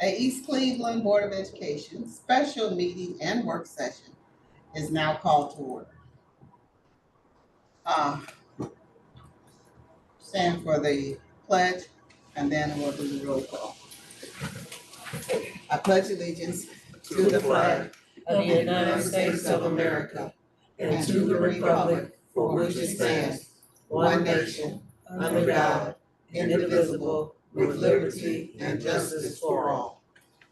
at East Cleveland Board of Education, special meeting and work session is now called to order. Uh, Stand for the pledge and then we'll do the roll call. I pledge allegiance to the flag of the United States of America and to the republic for which it stands, one nation, under God, indivisible, with liberty and justice for all.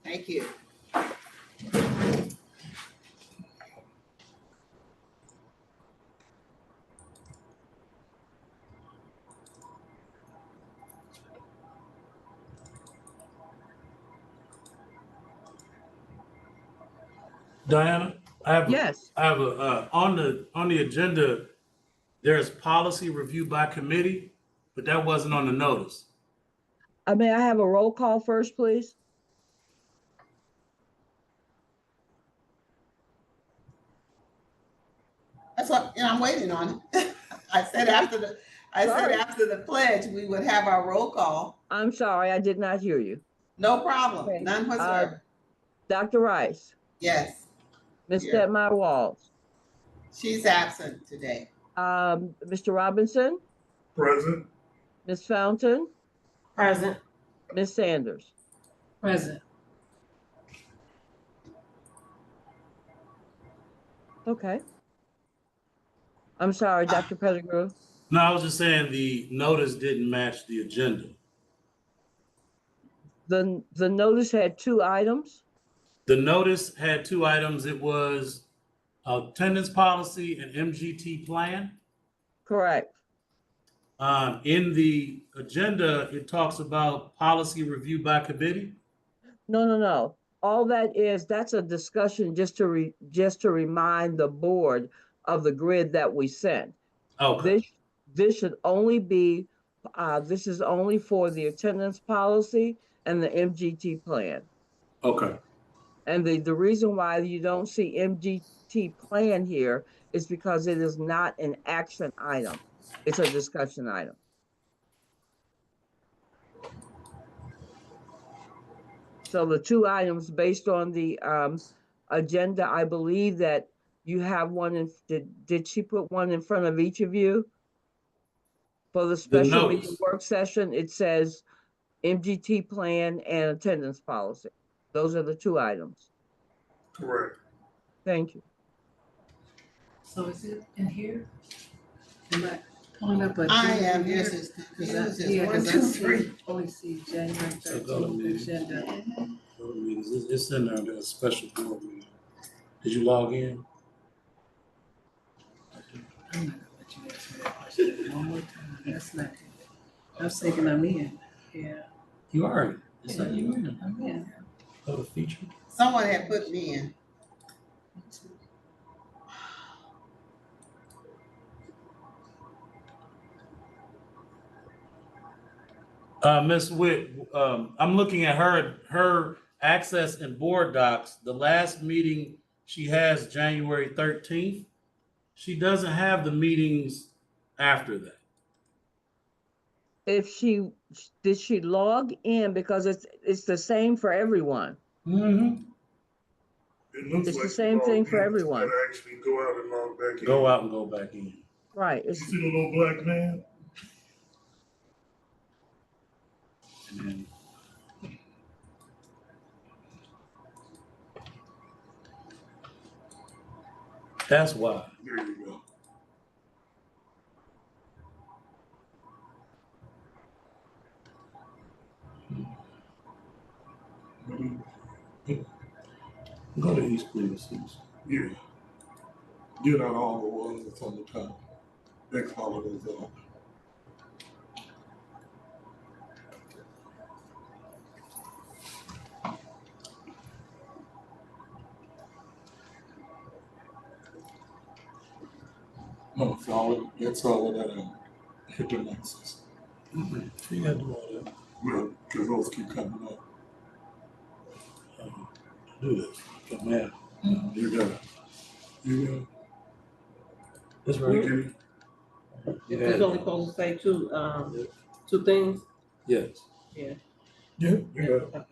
Thank you. Diana, I have, Yes, I have a, uh, on the, on the agenda, there's policy review by committee, but that wasn't on the notice. I may I have a roll call first, please? That's what, and I'm waiting on it. I said after the, I said Sorry. after the pledge, we would have our roll call. I'm sorry, I did not hear you. No Okay. problem, none whatsoever. Dr. Rice, Yes, Ms. Here. Stepmy Walls, she's absent today. um, Mr. Robinson, Present. Ms. Fountain, Present. Ms. Sanders. Present. Okay. I'm sorry, Dr. Pettigrew. No, I was just saying the notice didn't match the agenda. The, the notice had two items. The notice had two items. It was attendance policy and MGT plan. Correct. Um, in the agenda, it talks about policy review by committee. No, no, no. All that is, that's a discussion just to re, just to remind the board of the grid that we sent. Okay, This, this should only be, uh, this is only for the attendance policy and the MGT plan. okay, And the, the reason why you don't see MGT plan here is because it is not an action item. It's a discussion item. So the two items based on the, um, agenda, I believe that you have one in, did, did she put one in front of each of you? For the special meeting notes. work session, it says MGT plan and attendance policy. Those are the two items. Correct. Thank you. So is it in here? Am I pulling up a? I agenda am, here? yours is Cause I, confused, it's yeah, one, 'cause I two, see- three. only see January So go to thirteenth meeting. agenda. It's it's in there, there's a special board meeting. Did you log in? I'm not gonna let you ask me that question one more time. That's not good. I was thinking I'm in. Yeah, You are. in. It's not you in. I'm in. Go to feature. Someone had put me in. Uh, Ms. Witt, um, I'm looking at her, her access and board docs. The last meeting she has January thirteenth. She doesn't have the meetings after that. If she, did she log in because it's, it's the same for everyone? Mm-hmm. It looks It's the like you same log thing in, for but you everyone. gotta Actually go out and log back in. Go out and go back in. Right, You it's, see the little black man? And then- That's why. There you go. Go to East Cleveland. Susan. Yeah. Get out all the ones that's on the top. Next holidays off. No, it's all, it's all of that, uh, hit the nexus. Mm-hmm. You gotta do all that. Well, cause those keep coming up. Um, Do this. Get mad. You got it. You got it. This We right get here. it. You had He's it. only supposed to say two, um, two things? Yes. Yeah, you got it. Okay.